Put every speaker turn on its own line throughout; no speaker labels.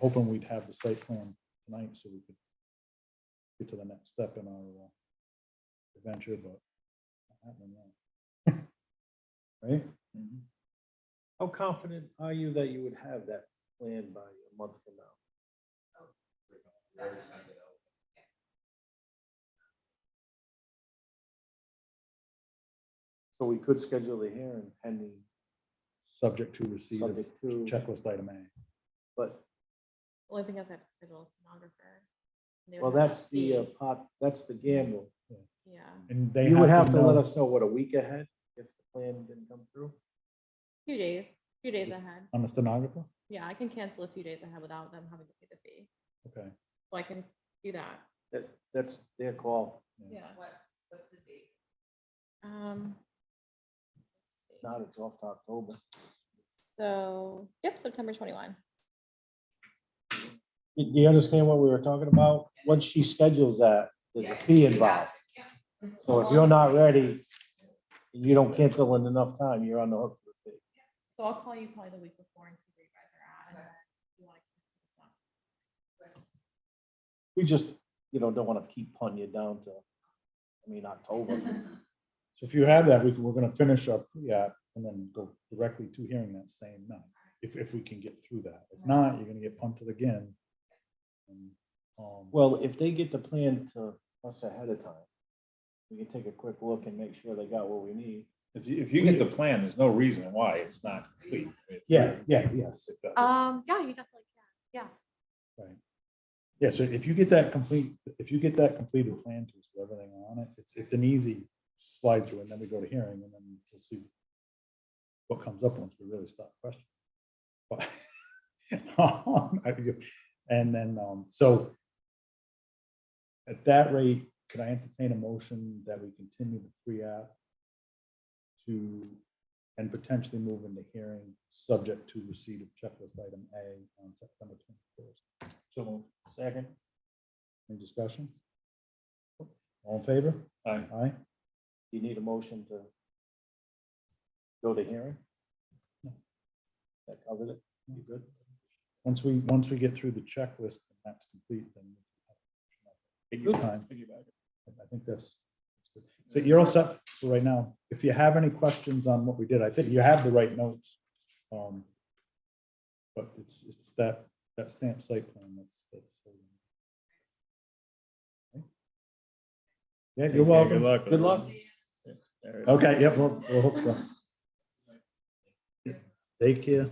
hoping we'd have the site plan tonight so we could get to the next step in our uh, adventure, but not happening yet. right?
Mm-hmm. How confident are you that you would have that plan by a month from now? So we could schedule the hearing pending,
Subject to receipt of
subject to,
checklist item A.
but,
Well, I think that's have to schedule a sonographer. They would
well,
have to
that's the uh,
see-
pot, that's the gamble.
Yeah,
And they
You would have to let
know-
us know, what, a week ahead if the plan didn't come through?
few days, few days ahead.
I'm a stenographer?
Yeah, I can cancel a few days ahead without them having to pay the fee.
Okay.
So I can do that.
That, that's their call,
Yeah. What, what's the date? Um. let's see.
not it's off to October.
So, yep, September twenty-one.
Do you understand what we were talking about? Once she schedules that, there's a fee involved. So if you're not ready, and you don't cancel in enough time, you're on the hook for the fee.
So I'll call you probably the week before and see where you guys are at. and then if you wanna cancel this one.
We just, you know, don't want to keep punting you down to, I mean, October.
So if you have that, we can, we're gonna finish up, yeah, and then go directly to hearing that same night, if, if we can get through that. If not, you're gonna get punted again. And, um,
Well, if they get the plan to us ahead of time, we can take a quick look and make sure they got what we need.
If you, if you get the plan, there's no reason why it's not complete.
Yeah, yeah, yes.
Um, yeah, you definitely can. Yeah,
Yeah, so if you get that complete, if you get that completed plan to us with everything on it, it's, it's an easy slide through and then we go to hearing and then we'll see what comes up once we really start questioning. But- um, I think- And then, um, so at that rate, could I entertain a motion that we continue the pre-app to, and potentially move into hearing, subject to receipt of checklist item A on September twenty-first?
So,
Second,
Any discussion? All in favor?
I,
Aye.
you need a motion to go to hearing? That covered it? You good?
Once we, once we get through the checklist, and that's complete, then. we can have time. I think that's, that's good. so you're all set for right now. If you have any questions on what we did, I think you have the right notes. um, But it's, it's that, that stamp site plan that's, that's. holding. Okay. Yeah, you're welcome.
luck.
Good luck.
Okay, yep, we'll, we'll hope so. Take care.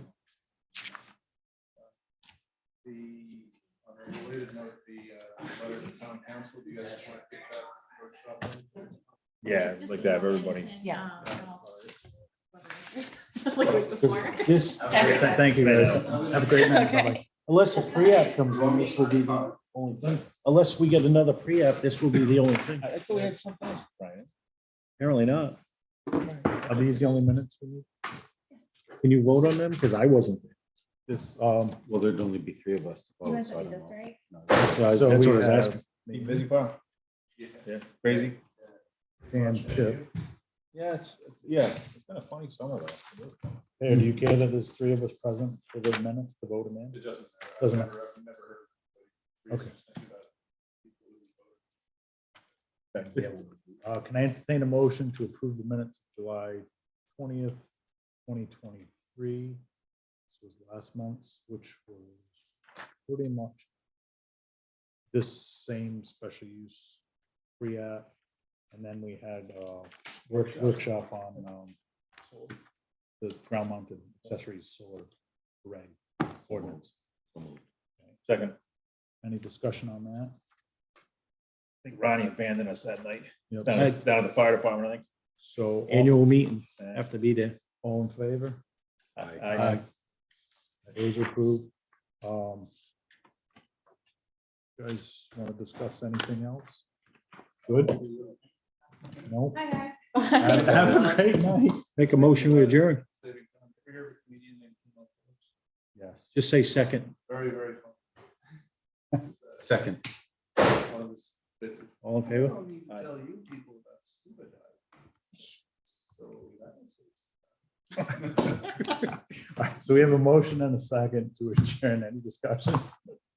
the, on a related note, the uh, letter to town council, do you guys want to pick that workshop? in?
Yeah, I'd like to have everybody.
Yes.
Oh,
This,
Okay.
Thank you, guys. Have a great night.
Okay.
Bye-bye.
unless a pre-app comes in, this will be the only thing. Unless we get another pre-app, this will be the only thing.
I thought we had something else, Brian.
Apparently not.
Are these the only minutes we need?
Can you vote on them? Because I wasn't.
This, um,
Well, there'd only be three of us. to
Oh,
vote, so I don't know.
right?
So I-
So
That's
we
what I was
have-
asking.
You busy, Bob?
Yeah.
Yeah, crazy.
and Chip.
Yeah, it's- yeah, it's kind of funny summer though.
Hey, do you care that there's three of us present for the minutes, the vote amendment?
It doesn't matter. I've
Doesn't
never- I've never heard of
Okay.
reasons to do that. People who vote.
Uh, can I entertain a motion to approve the minutes of July twentieth, twenty twenty-three? This was last month's, which was pretty much this same special use pre-app. And then we had, uh, work- workshop on, um, the ground mounted accessories solar array ordinance.
Second,
Any discussion on that?
I think Ronnie abandoned us that night,
Yep.
down at down at the fire department, I think.
So, uh, all-
Annual meeting,
Yeah.
have to be there.
all in favor?
I- I-
Those are approved. Um, you Guys, want to discuss anything else? Good? No?
Hi, guys.
Have have a great night.
Make a motion, we adjourn.
Saving time. Every year, a comedian named Tim Lopez.
Yes.
Just say second.
Very, very fun. It's, uh,
Second.
One of his bits is,
All in
I
favor?
don't need to
Aye.
tell you people about scuba diving. So that was.
All right, So we have a motion and a second to adjourn. Any discussion?